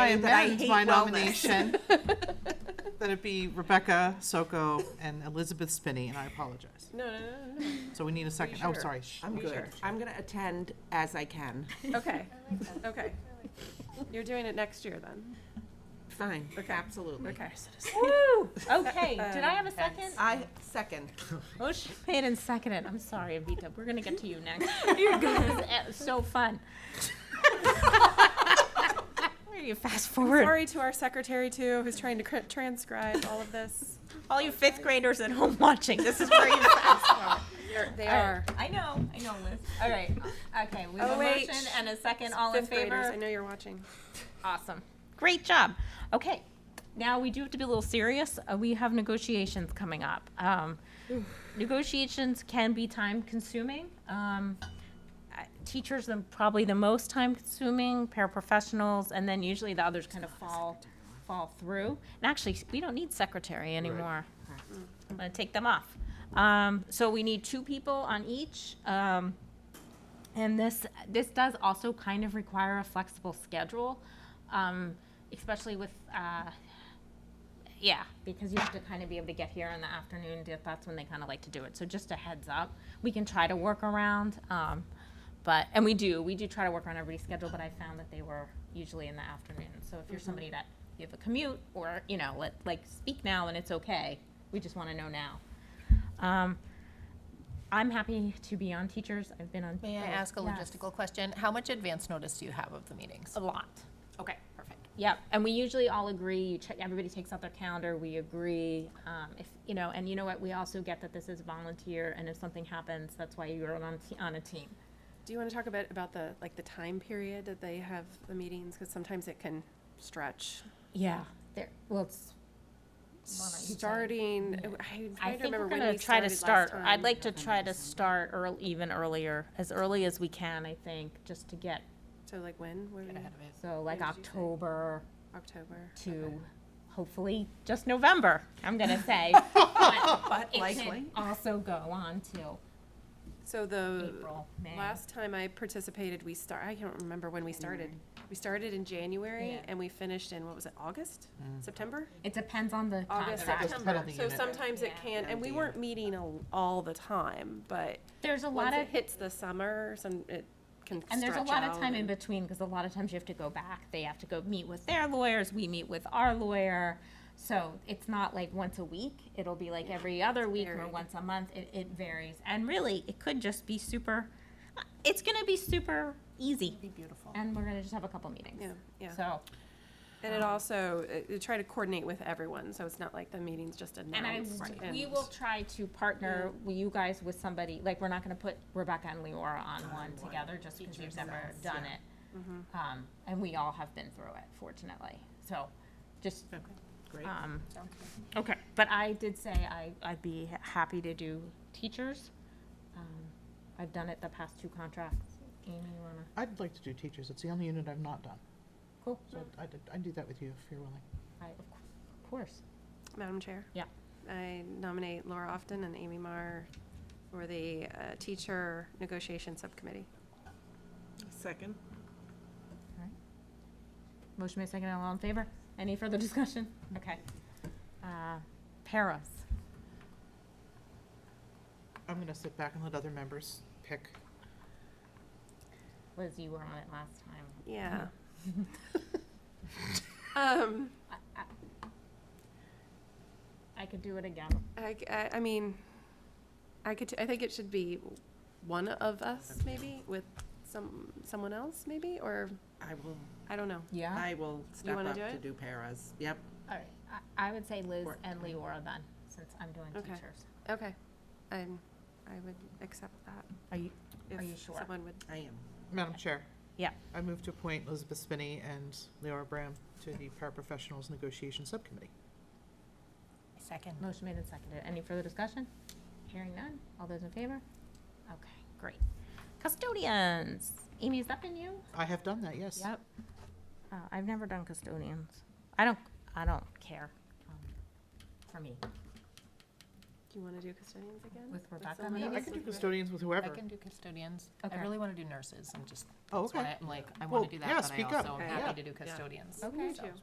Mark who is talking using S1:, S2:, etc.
S1: that I
S2: amend
S1: hate
S2: my
S1: wellness.
S2: nomination. That it be Rebecca Soko and Elizabeth Spinney, and I apologize.
S3: No, no, no, no,
S2: So we need a second, oh,
S3: sure?
S2: sorry. Sh-
S1: I'm good. I'm gonna attend as I can.
S3: no. Okay, okay. You're doing it next year then.
S1: Fine,
S3: Okay.
S1: absolutely.
S3: Okay.
S4: Okay, did I have a second?
S1: I second.
S4: Motion made and seconded. I'm sorry, Avita. We're gonna get to you next. You're good. It's so fun. Where you fast forward?
S3: Sorry to our secretary too, who's trying to cr- transcribe all of this.
S4: All you fifth graders at home watching, this is where you fast forward.
S3: They
S4: All right. I know, I know, Liz. All right. Okay, we have a
S3: OH.
S4: motion and a second. All in
S3: Fifth graders, I
S4: favor?
S3: know you're watching.
S4: Awesome. Great job. Okay. Now we do have to be a little serious. Uh, we have negotiations coming up. Um, negotiations can be time consuming. Um, I- teachers are probably the most time consuming, paraprofessionals, and then usually the others kind of fall fall through. And actually, we don't need secretary anymore. I'm gonna take them off. Um, so we need two people on each. Um, and this, this does also kind of require a flexible schedule, um, especially with, uh, yeah, because you have to kind of be able to get here in the afternoon, that- that's when they kind of like to do it, so just a heads up. We can try to work around, um, but, and we do, we do try to work around everybody's schedule, but I found that they were usually in the afternoon. So if you're somebody
S5: Mm-hmm.
S4: that, you have a commute, or, you know, let, like, speak now and it's okay, we just want to know now. Um, I'm happy to be on teachers, I've been on.
S5: May I
S4: both.
S5: ask a
S4: Yes.
S5: logistical question? How much advance notice do you have of the meetings?
S4: A lot.
S5: Okay, perfect.
S4: Yep. And we usually all agree. You check. Everybody takes out their calendar. We agree. Um, if you know, and you know what, we also get that this is volunteer, and if something happens, that's why you're on t- on a team.
S3: Do you want to talk a bit about the, like, the time period that they have the meetings? Because sometimes it can stretch.
S4: Yeah. There. Well, it's.
S3: Starting, I'm trying to
S4: I think we're
S3: remember when
S4: gonna
S3: we
S4: try to
S3: started last
S4: start. I'd
S3: time.
S4: like to try to start earl even earlier, as early as we can. I think just to get
S3: So like when? When-
S4: so like
S3: When did you say?
S4: October.
S3: October.
S4: to hopefully just November, I'm gonna say. But
S1: But
S4: it
S1: likely.
S4: can also go on till
S3: So the
S4: April, May.
S3: last time I participated, we start, I can't remember when we started. We started in January
S4: Yeah.
S3: and we finished in, what was it, August? September?
S4: It depends on the
S3: Mm. August,
S4: contract.
S3: September.
S2: penalty
S3: So
S2: unit.
S3: sometimes it
S4: Yeah.
S3: can, and we weren't meeting al- all the time, but
S4: There's a lot
S3: once
S4: of,
S3: it hits the summer, some, it can
S4: and there's a
S3: stretch
S4: lot of
S3: out
S4: time in
S3: and-
S4: between, because a lot of times you have to go back. They have to go meet with their lawyers, we meet with our lawyer. So it's not like once a week, it'll be like every other week or
S3: varied.
S4: once a month. It, it varies. And really, it could just be super, it's gonna be super easy.
S5: Be beautiful.
S4: And we're gonna just have a couple meetings.
S3: Yeah, yeah.
S4: So. um,
S3: And it also, it- it try to coordinate with everyone, so it's not like the meeting's just
S4: Um, And I,
S3: announced.
S4: we will try to partner with you guys with somebody, like, we're not gonna put Rebecca and Leora on one together, just because we've never done it. Um, and we all have been through it, fortunately, so, just,
S2: Great.
S3: Uh,
S4: um, okay, but I did say I, I'd be happy to do teachers. Um, I've done it the past two contracts, Amy, you wanna,
S2: I'd like to do teachers, it's the only unit I've not done,
S4: cool,
S2: so I'd, I'd do that with you if you're willing.
S4: I, of cour- of course,
S3: Madam Chair?
S4: Yeah.
S3: I nominate Laura Often and Amy Marr for the uh, Teacher Negotiation Subcommittee.
S1: Second.
S4: motion made second, all in favor, any further discussion, okay. Uh, paras.
S2: I'm gonna sit back and let other members pick.
S4: Liz, you were on it last time.
S3: Yeah. Um,
S4: I could do it again.
S3: I, c- I- I mean, I could, t- I think it should be one of us, maybe, with some, someone else, maybe, or,
S1: I will,
S3: I don't know.
S4: Yeah?
S1: I will step
S3: Uh, wanna
S1: up
S3: do
S1: to
S3: it?
S1: do paras. Yep.
S4: All right, I, I would say Liz
S1: Or-
S4: and Leora then, since I'm doing
S3: Okay.
S4: teachers.
S3: Okay. I'm, I would accept that.
S4: Are you,
S3: if
S4: Are you sure?
S3: Someone would,
S1: I am.
S2: Madam Chair.
S4: Yeah.
S2: I move to appoint Elizabeth Spinney and Leora Bram to the Paraprofessionals Negotiation Subcommittee.
S5: Second.
S4: motion made and seconded. Any further discussion? Hearing none. All those in favor? Okay, great. Custodians. Amy, has that been you?
S2: I have done that, yes.
S4: Yep. Uh, I've never done custodians. I don't, I don't care, um, for me.
S3: Do you want to do custodians again?
S4: With Rebecca,
S3: someone
S4: maybe?
S3: else?
S2: I can do custodians with whoever.
S5: I can do custodians.
S4: Okay.
S5: I really want to do nurses. I'm just,
S2: Oh,
S5: that's what
S2: okay.
S5: I- I'm like, I
S2: Well,
S5: want to do
S2: yeah,
S5: that, but I
S2: speak up.
S5: also am
S1: Yeah.
S5: happy to do custodians.
S3: Okay.
S5: So-
S3: Me too.